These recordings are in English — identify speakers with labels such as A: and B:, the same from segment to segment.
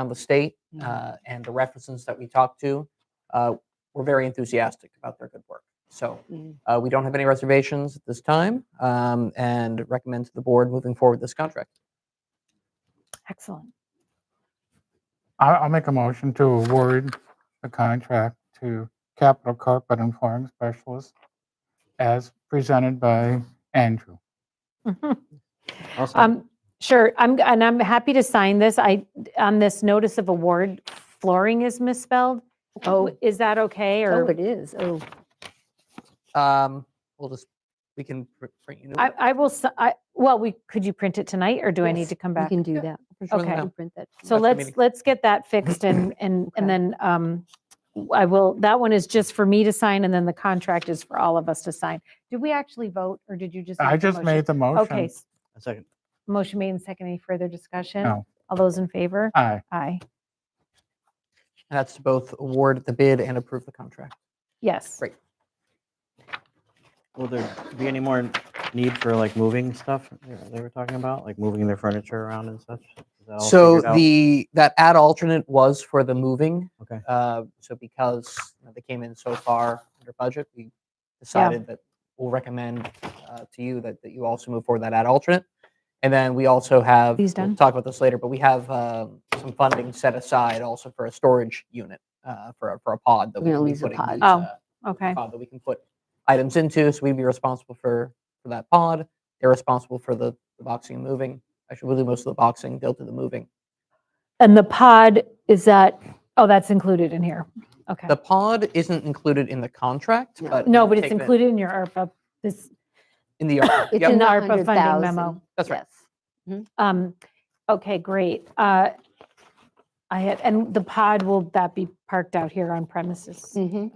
A: around the state
B: Mhm.
C: Mm-hmm.
A: uh, and the references that we talked to uh, were very enthusiastic about their good work. So
B: Mhm.
A: uh, we don't have any reservations at this time um, and recommend to the board moving forward this contract.
B: Excellent.
D: I- I'll make a motion to award the contract to Capital Carpet and Flooring Specialists as presented by Andrew.
C: Mm-hmm.
B: Um, Sure, I'm, g- and I'm happy to sign this. I, on this notice of award, flooring is misspelled. Oh, is that okay?
C: Oh,
B: Or
C: it is. Oh,
A: Um, we'll just, we can pr- print you. new
B: I,
A: one.
B: I will, s- I, well, we, could you print it tonight or do I
C: Yes,
B: need to come
C: we
B: back?
C: can do that.
A: Print you one
B: okay.
A: now.
C: Can print that.
A: after
B: So
A: the
B: let's,
A: meeting.
B: let's get that fixed and, and,
C: Okay.
B: and then um, I will, that one is just for me to sign and then the contract is for all of us to sign. Did we actually vote or did you just?
D: I
B: make the
D: just
B: motion?
D: made the
B: Okay,
D: motion.
B: s-
E: A second.
B: motion made and second. Any further discussion?
D: No.
B: All those in favor?
D: Aye.
B: Aye.
A: That's to both award the bid and approve the contract.
B: Yes.
A: Great.
E: Will there be any more need for like moving stuff they- they were talking about, like moving their furniture around and such? Is that all
A: So
E: figured out?
A: the, that ad alternate was for the moving.
E: Okay.
A: Uh, So because you know, they came in so far under budget, we decided that we'll recommend uh, to you that, that you also move forward that ad alternate. And then we also have,
B: These
A: we'll
B: done?
A: talk about this later, but we have um, some funding set aside also for a storage unit, uh, for, a- for a pod that we
C: We're
A: can
C: gonna
A: be
C: lose the
A: putting
C: pod.
A: these,
B: Oh,
A: uh,
B: Okay.
A: pod that we can put items into. So we'd be responsible for, for that pod. They're responsible for the, the boxing and moving. Actually, we'll do most of the boxing, they'll do the moving.
B: And the pod, is that, oh, that's included in here. Okay.
A: The pod isn't included in the contract,
C: No.
A: but.
B: No,
A: we'll
B: but it's
A: take that
B: included in your ARPA, this,
A: In the, ARPA.
C: It's
A: Yep,
C: in the
B: ARPA funding
C: 100,000.
B: memo.
A: that's right.
C: Yes.
B: um, okay, great. Uh, I had, and the pod, will that be parked out here on premises?
C: Mhm.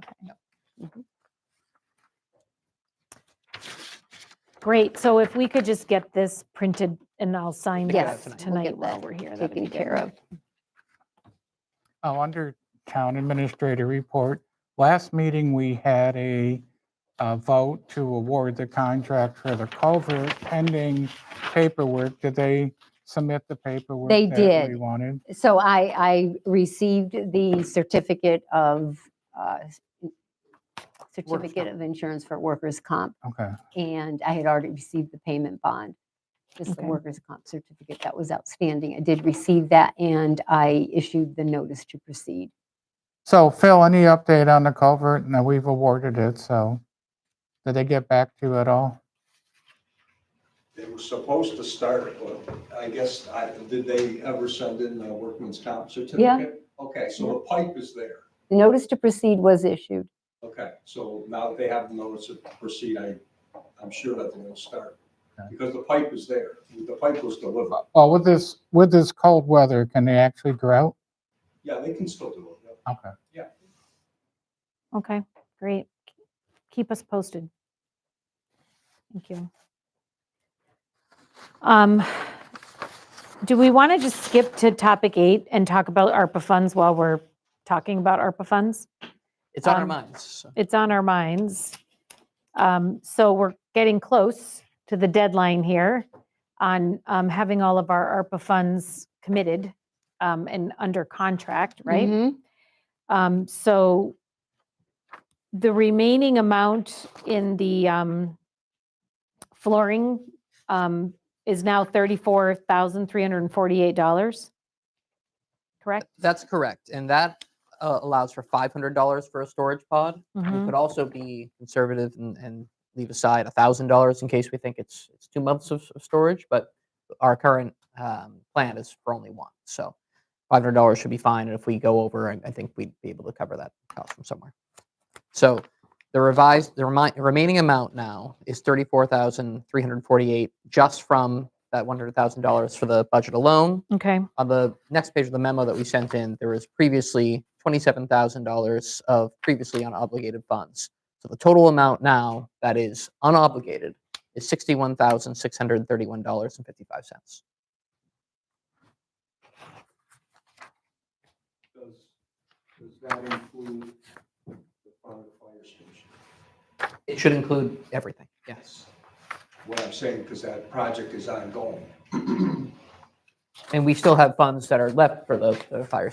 B: Great, so if we could just get this printed and I'll sign
A: Take it out tonight.
C: We'll
B: this
C: get
B: tonight while
C: that
B: we're here. that'd
C: Taken
B: be good.
C: care of.
D: Oh, under Town Administrator Report, last meeting, we had a uh, vote to award the contract for the culvert pending paperwork. Did they submit the paperwork?
C: They
D: that
C: did.
D: We wanted?
C: So I, I received the certificate of, uh, certificate
A: comp.
C: of insurance for workers' comp,
D: Okay.
C: and I had already received the payment bond. Just the
B: Okay.
C: workers' comp certificate, that was outstanding. I did receive that, and I issued the notice to proceed.
D: So Phil, any update on the culvert? Now, we've awarded it, so did they get back to you at all?
F: They were supposed to start, it, but I guess, I, did they ever send in the workman's comp certificate? Okay, so the pipe is there.
C: The notice to proceed was issued.
F: Okay, so now that they have the notice to proceed, I, I'm sure that they'll start.
D: Okay.
F: Because the pipe is there. The pipe was delivered.
D: Well, Oh, with this, with this cold weather, can they actually go out?
F: Yeah, they can still do it. yeah.
D: Okay.
B: Okay, great. Keep us posted. Thank you. Um, Do we want to just skip to topic eight and talk about ARPA funds while we're talking about ARPA funds?
A: It's on our
B: Um,
A: minds. so-
B: It's on our minds. Um, So we're getting close to the deadline here on um, having all of our ARPA funds committed um, and under contract, right?
C: Mhm.
B: Um, so the remaining amount in the, um, flooring, um, is now thirty-four thousand, three hundred and forty-eight dollars. Correct?
A: That's correct. And that uh, allows for $500 for a storage pod. We
B: Mhm.
A: could also be conservative and, and leave aside $1,000 in case we think it's, it's two months of, of storage, but our current um, plan is for only one. So $500 should be fine. And if we go over, I, I think we'd be able to cover that cost from somewhere. So the revised, the remi- remaining amount now is 34348 just from that $100,000 for the budget alone
B: Okay,
A: on the next page of the memo that we sent in, there was previously twenty-seven thousand dollars of previously unobligated funds. So the total amount now that is unobligated is sixty-one thousand six hundred thirty-one dollars and fifty-five cents.
F: Does, does that include the front of the fire station?
A: It should include everything, yes.
F: What I'm saying, because that project is ongoing.
A: And we still have funds that are left for the, the fire station.